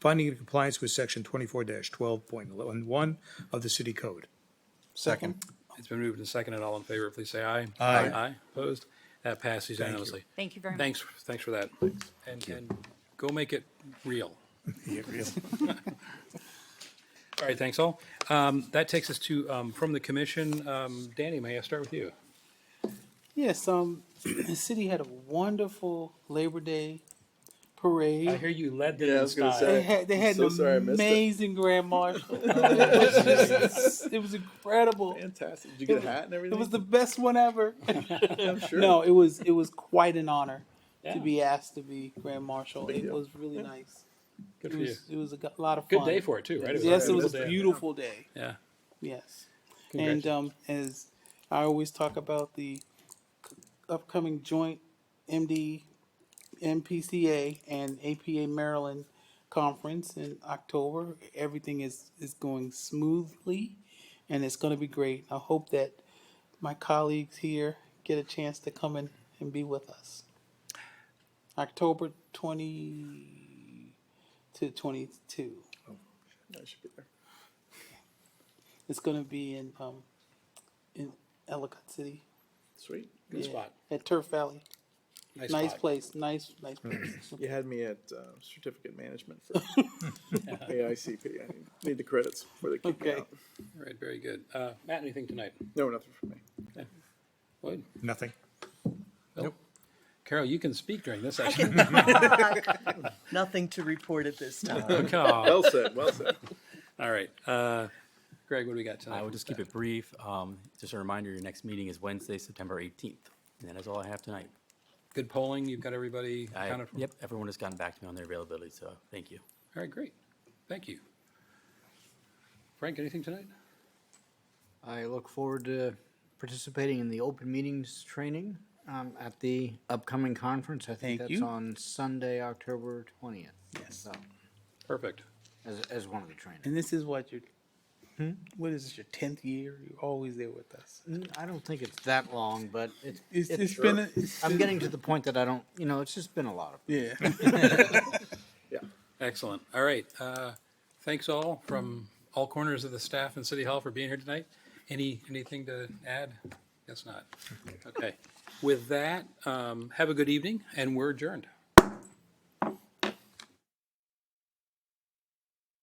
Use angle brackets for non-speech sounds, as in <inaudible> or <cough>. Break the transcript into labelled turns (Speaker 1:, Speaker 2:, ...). Speaker 1: finding it in compliance with section twenty-four twelve point eleven one of the city code.
Speaker 2: Second.
Speaker 3: It's been moved and seconded. All in favor, please say aye.
Speaker 1: Aye.
Speaker 3: Aye, opposed? That passes
Speaker 1: you.
Speaker 3: unanimously.
Speaker 4: Thank you very much.
Speaker 3: Thanks, thanks for that. And, and go make it real.
Speaker 1: Yeah, really.
Speaker 3: All right, thanks all. Um, that takes us to, um, from the commission, um, Danny, may I start with you?
Speaker 2: Yes, um, <clears throat> the city had a wonderful Labor Day parade.
Speaker 3: I hear you led it
Speaker 5: Yeah, I
Speaker 3: in
Speaker 5: was gonna
Speaker 3: style.
Speaker 2: They
Speaker 5: say.
Speaker 2: had they
Speaker 5: I'm
Speaker 2: had
Speaker 5: so
Speaker 2: an
Speaker 5: sorry I missed it.
Speaker 2: amazing
Speaker 5: <laughs>
Speaker 2: grand marshal. it, was just- it was incredible.
Speaker 5: Fantastic. Did you get a hat and
Speaker 2: It
Speaker 5: everything?
Speaker 2: was the best one ever.
Speaker 5: <laughs> I'm sure.
Speaker 2: No, it was it was quite an honor
Speaker 3: Yeah.
Speaker 2: to be asked to be grand marshal.
Speaker 5: Big
Speaker 2: It
Speaker 5: deal.
Speaker 2: was really nice.
Speaker 3: Good
Speaker 2: It
Speaker 3: for you.
Speaker 2: was it was a g- lot of
Speaker 3: Good
Speaker 2: fun.
Speaker 3: day for it too, right? was
Speaker 2: Yes, it was
Speaker 3: beautiful
Speaker 2: a
Speaker 3: day.
Speaker 2: beautiful day.
Speaker 3: Yeah.
Speaker 2: Yes. And um, as I always talk about the upcoming joint MD, MPCA and APA Maryland conference in October, everything is, is going smoothly and it's going to be great. I hope that my colleagues here get a chance to come in and be with us. October 20 to 22.
Speaker 5: I should be there.
Speaker 2: It's going to be in um, in Ellicott City.
Speaker 5: Sweet.
Speaker 3: Good
Speaker 2: Yeah,
Speaker 3: spot.
Speaker 2: At Turf Valley. Nice
Speaker 3: spot.
Speaker 2: place. Nice, nice place.
Speaker 5: You had me at uh, certificate management for AICP. I need- need the credits before they kick me
Speaker 2: Okay.
Speaker 5: out.
Speaker 3: All right, very good. Uh, Matt, anything tonight?
Speaker 5: No, nothing for me.
Speaker 3: Lloyd?
Speaker 1: Nothing.
Speaker 3: Nope. Carol, you can speak during this session.
Speaker 6: Nothing to report at this time.
Speaker 3: <laughs> Okay.
Speaker 5: Well said. Well said.
Speaker 3: <laughs> All right. Uh, Greg, what do we got tonight?
Speaker 7: I will just keep it brief. Um, Just a reminder, your next meeting is Wednesday, September 18th. And that is all I have tonight.
Speaker 3: Good polling. You've got everybody
Speaker 7: I-
Speaker 3: accounted for.
Speaker 7: Yep, everyone has gotten back to me on their availability, so thank you.
Speaker 3: All right, great. Thank you. Frank, anything tonight?
Speaker 8: I look forward to participating in the open meetings training um, at the upcoming conference. I
Speaker 2: Thank
Speaker 8: think that's
Speaker 2: you.
Speaker 8: on Sunday, October twentieth.
Speaker 2: Yes.
Speaker 8: So,
Speaker 3: Perfect.
Speaker 8: as, as one of the trainings.
Speaker 2: And this is what your, what is this, your tenth year? You're always there with us.
Speaker 8: Mm, I don't think it's that long, but it's,
Speaker 2: It's, it's
Speaker 8: it's,
Speaker 2: been, a- it's
Speaker 8: I'm
Speaker 2: been-
Speaker 8: getting to the point that I don't, you know, it's just been a lot of.
Speaker 2: Yeah.
Speaker 3: Excellent. All right. Uh, Thanks all from all corners of the staff and City Hall for being here tonight. Any, anything to add? Guess not. Okay. With that, um, have a good evening and we're adjourned.